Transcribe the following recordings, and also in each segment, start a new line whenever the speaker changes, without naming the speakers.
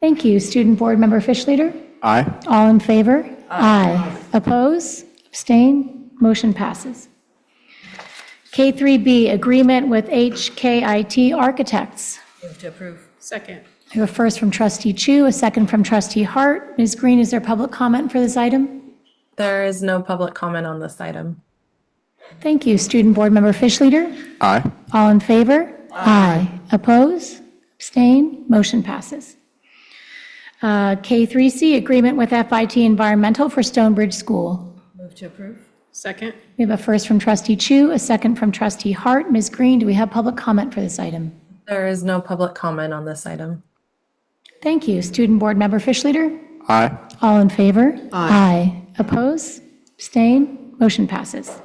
Thank you. Student Board Member Fish Leader?
Aye.
All in favor? Aye. Oppose? Abstain? Motion passes. K3B, Agreement with HKIT Architects.
Move to approve.
Second.
I have a first from trustee Chu, a second from trustee Hart. Ms. Green, is there public comment for this item?
There is no public comment on this item.
Thank you. Student Board Member Fish Leader?
Aye.
All in favor? Aye. Oppose? Abstain? Motion passes. Uh, K3C, Agreement with FIT Environmental for Stonebridge School.
Move to approve.
Second.
We have a first from trustee Chu, a second from trustee Hart. Ms. Green, do we have public comment for this item?
There is no public comment on this item.
Thank you. Student Board Member Fish Leader?
Aye.
All in favor? Aye. Oppose? Abstain? Motion passes.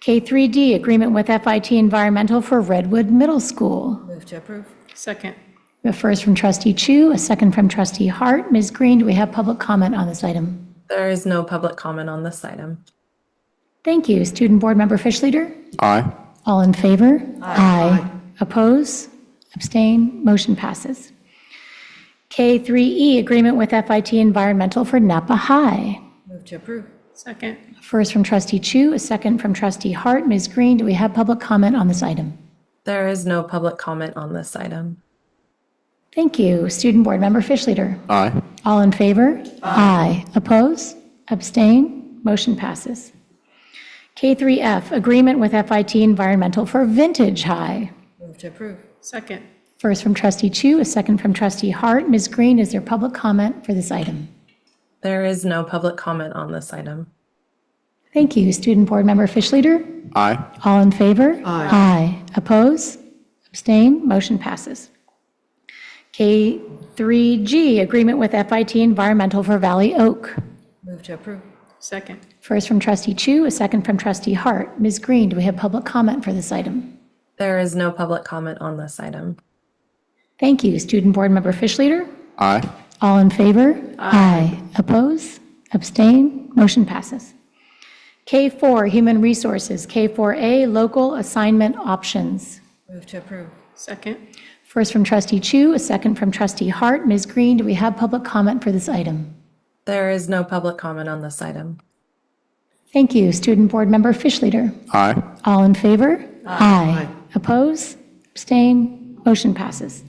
K3D, Agreement with FIT Environmental for Redwood Middle School.
Move to approve.
Second.
We have a first from trustee Chu, a second from trustee Hart. Ms. Green, do we have public comment on this item?
There is no public comment on this item.
Thank you. Student Board Member Fish Leader?
Aye.
All in favor? Aye. Oppose? Abstain? Motion passes. K3E, Agreement with FIT Environmental for Napa High.
Move to approve.
Second.
First from trustee Chu, a second from trustee Hart. Ms. Green, do we have public comment on this item?
There is no public comment on this item.
Thank you. Student Board Member Fish Leader?
Aye.
All in favor? Aye. Oppose? Abstain? Motion passes. K3F, Agreement with FIT Environmental for Vintage High.
Move to approve.
Second.
First from trustee Chu, a second from trustee Hart. Ms. Green, is there public comment for this item?
There is no public comment on this item.
Thank you. Student Board Member Fish Leader?
Aye.
All in favor? Aye. Oppose? Abstain? Motion passes. K3G, Agreement with FIT Environmental for Valley Oak.
Move to approve.
Second.
First from trustee Chu, a second from trustee Hart. Ms. Green, do we have public comment for this item?
There is no public comment on this item.
Thank you. Student Board Member Fish Leader?
Aye.
All in favor? Aye. Oppose? Abstain? Motion passes. K4, Human Resources, K4A, Local Assignment Options.
Move to approve.
Second.
First from trustee Chu, a second from trustee Hart. Ms. Green, do we have public comment for this item?
There is no public comment on this item.
Thank you. Student Board Member Fish Leader?
Aye.
All in favor? Aye. Oppose? Abstain? Motion passes.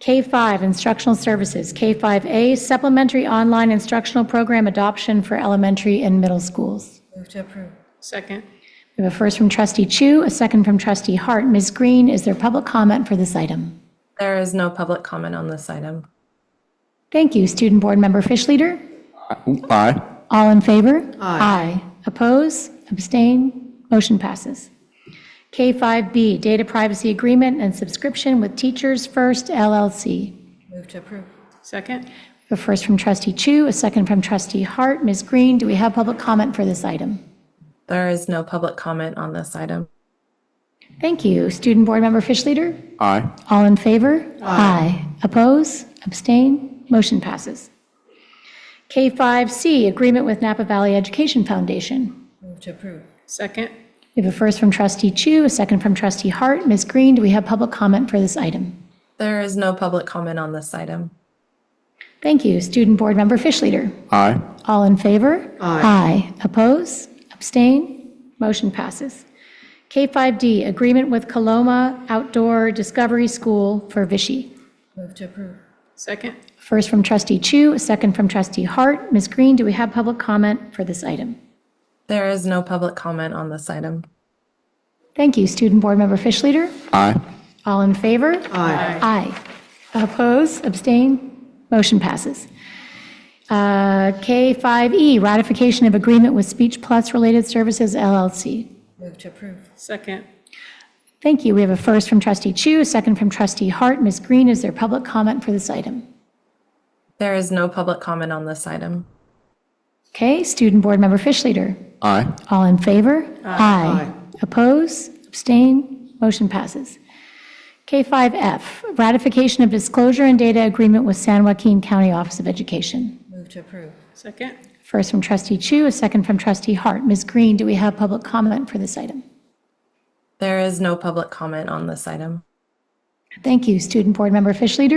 K5, Instructional Services, K5A, Supplementary Online Instructional Program Adoption for Elementary and Middle Schools.
Move to approve.
Second.
We have a first from trustee Chu, a second from trustee Hart. Ms. Green, is there public comment for this item?
There is no public comment on this item.
Thank you. Student Board Member Fish Leader?
Aye.
All in favor? Aye. Oppose? Abstain? Motion passes. K5B, Data Privacy Agreement and Subscription with Teachers First LLC.
Move to approve.
Second.
A first from trustee Chu, a second from trustee Hart. Ms. Green, do we have public comment for this item?
There is no public comment on this item.
Thank you. Student Board Member Fish Leader?
Aye.
All in favor? Aye. Oppose? Abstain? Motion passes. K5C, Agreement with Napa Valley Education Foundation.
Move to approve.
Second.
We have a first from trustee Chu, a second from trustee Hart. Ms. Green, do we have public comment for this item?
There is no public comment on this item.
Thank you. Student Board Member Fish Leader.
Aye.
All in favor? Aye. Oppose? Abstain? Motion passes. K5D, Agreement with Coloma Outdoor Discovery School for Vichy.
Move to approve.
Second.
First from trustee Chu, a second from trustee Hart. Ms. Green, do we have public comment for this item?
There is no public comment on this item.
Thank you. Student Board Member Fish Leader.
Aye.
All in favor? Aye. Aye. Oppose, abstain, motion passes. Uh, K5E, ratification of agreement with Speech Plus Related Services LLC.
Move to approve.
Second.
Thank you. We have a first from trustee Chu, a second from trustee Hart. Ms. Green, is there public comment for this item?
There is no public comment on this item.
Okay, student board member Fish Leader.
Aye.
All in favor? Aye. Oppose? Abstain? Motion passes. K5F, ratification of disclosure and data agreement with San Joaquin County Office of Education.
Move to approve.
Second.
First from trustee Chu, a second from trustee Hart. Ms. Green, do we have public comment for this item?
There is no public comment on this item.
Thank you. Student Board Member Fish Leader?